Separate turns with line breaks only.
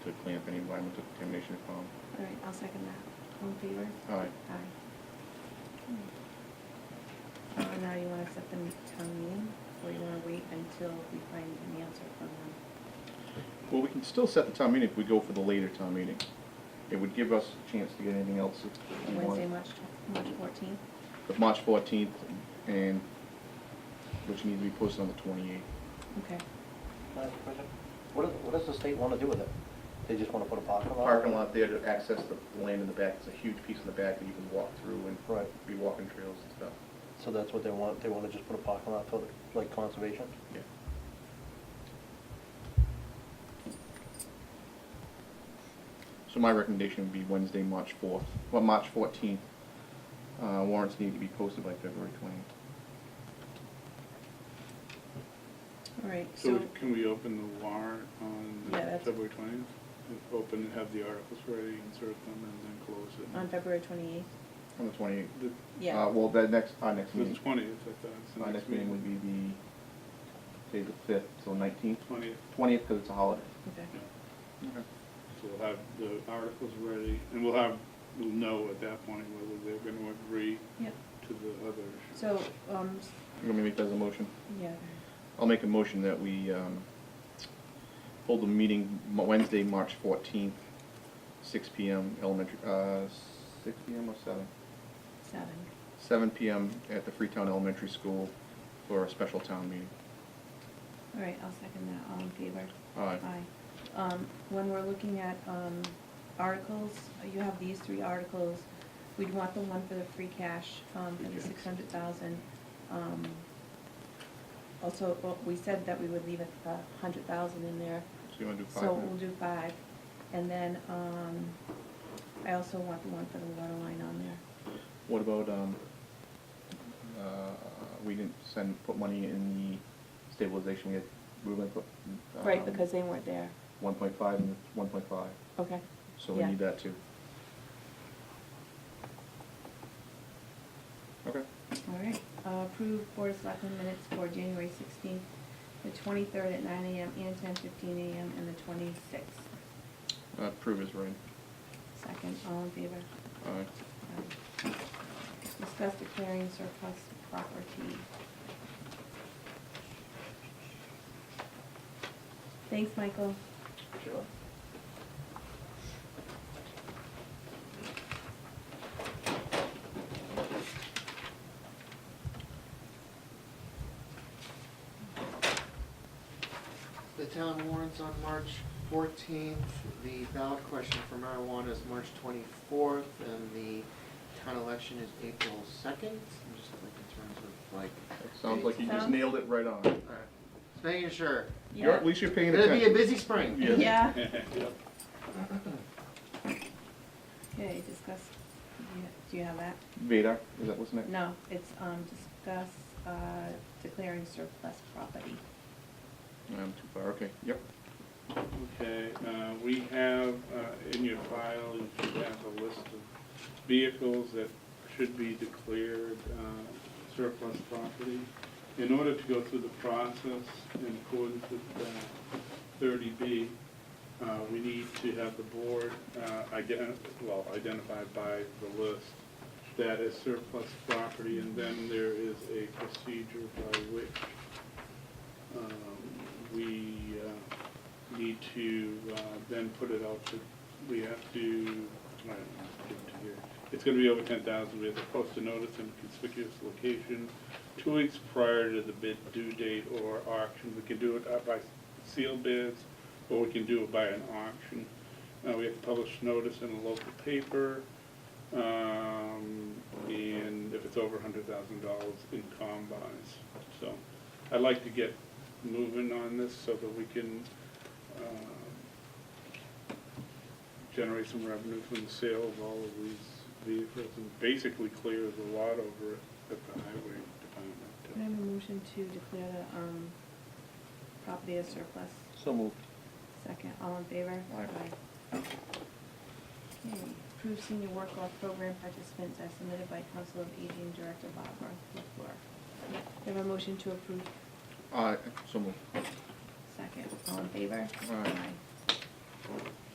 to clean up any environmental contamination if found.
All right, I'll second that. All in favor?
Aye.
Aye. Uh, now you wanna set the town meeting, or you wanna wait until we find an answer from them?
Well, we can still set the town meeting if we go for the later town meeting. It would give us a chance to get anything else if we
Wednesday,
want.
March, March fourteenth?
But March fourteenth and, which needs to be posted on the twenty-eighth.
Okay.
Madam President, What does, what does the state want to do with it? They just want to put a parking lot?
Parking lot there to access the- the land in the back, it's a huge piece in the back that you can walk through and
Right,
be walking trails and stuff.
so that's what they want, they want to just put a parking lot for, the- like, conservation?
Yeah. So my recommendation would be Wednesday, March fourth, well, March fourteenth. Uh, warrants need to be posted by February twentieth.
All right, so,
So can we open the warrant on
Yeah, that's-
February twentieth? Open and have the articles ready, insert them, and then close it?
on February twenty-eighth?
On the twenty-eighth.
The-
Yeah.
Uh, well, the next, our next
The
meeting,
twentieth, I thought, it's the
our next meeting would be the, say, the fifth, so nineteenth,
Twentieth,
twentieth, because it's a holiday.
Okay.
Okay.
so we'll have the articles ready, and we'll have, we'll know at that point whether they're gonna agree
Yep.
to the other. issues.
So, um,
You want me to make that as a motion?
yeah,
I'll make a motion that we um, hold the meeting Mo- Wednesday, March 14th, 6 PM, elementary, uh, 6 PM or 7?
seven.
7 PM at the Freetown Elementary School for a special town meeting.
All right, I'll second that. All in favor?
Aye.
Aye. Um, when we're looking at, um, articles, you have these three articles. We'd want the one for the free cash, um, for
Free
the
cash.
six hundred thousand. Um, also, well, we said that we would leave a, a hundred thousand in there.
So you want to do five?
So
minutes?
we'll do five. And then, um, I also want the one for the water line on there.
What about, um, uh, we didn't send, put money in the stabilization, we had, we were going to put. um,
Right, because they weren't there.
1.5 and 1.5,
Okay.
so we
Yeah.
need that too. Okay.
All right, Uh, approve Board of Selectmen minutes for January sixteenth, the twenty-third at nine AM and ten fifteen AM, and the twenty-sixth.
Uh, Prove is right.
Second, all in favor?
Aye.
Aye. Discuss declaring surplus property. Thanks, Michael.
Sure.
The town warrants on March fourteenth, the ballot question for marijuana is March twenty-fourth, and the town election is April second. I'm just like in terms of like,
Sounds like you just
Sounds-
nailed it right on.
alright, just making sure.
You're, at least you're paying
It'll be a
attention.
busy spring.
Yeah.
Yeah.
Yep.
Okay, discuss, do you- do you have that?
Vadar, is that what's next?
No, it's, um, discuss, uh, declaring surplus property.
I'm too far, okay, yep.
Okay, uh, we have, uh, in your file, you should have a list of vehicles that should be declared uh, surplus property. In order to go through the process in accordance with uh, thirty B, uh, we need to have the board uh, ident, well, identified by the list that is surplus property, and then there is a procedure by which um, we uh, need to uh, then put it out to, we have to, I don't know, give it to here. It's gonna be over ten thousand, we have to post a notice in a conspicuous location two weeks prior to the bid due date or auction. We can do it uh, by sealed bids, or we can do it by an auction. Uh, We have to publish notice in a local paper, um, and if it's over hundred thousand dollars in combines. So I'd like to get moving on this so that we can um, generate some revenue from the sale of all of these vehicles and basically clear the lot over at the highway
Can I
department.
have a motion to declare the, um, property as surplus?
So moved.
Second, all in favor?
Aye.
Okay, approve senior work off program participants as submitted by Council of Aging Director Bob Markfleur. Can I have a motion to approve?
Aye, Uh, so moved.
Second, all in favor?
Aye.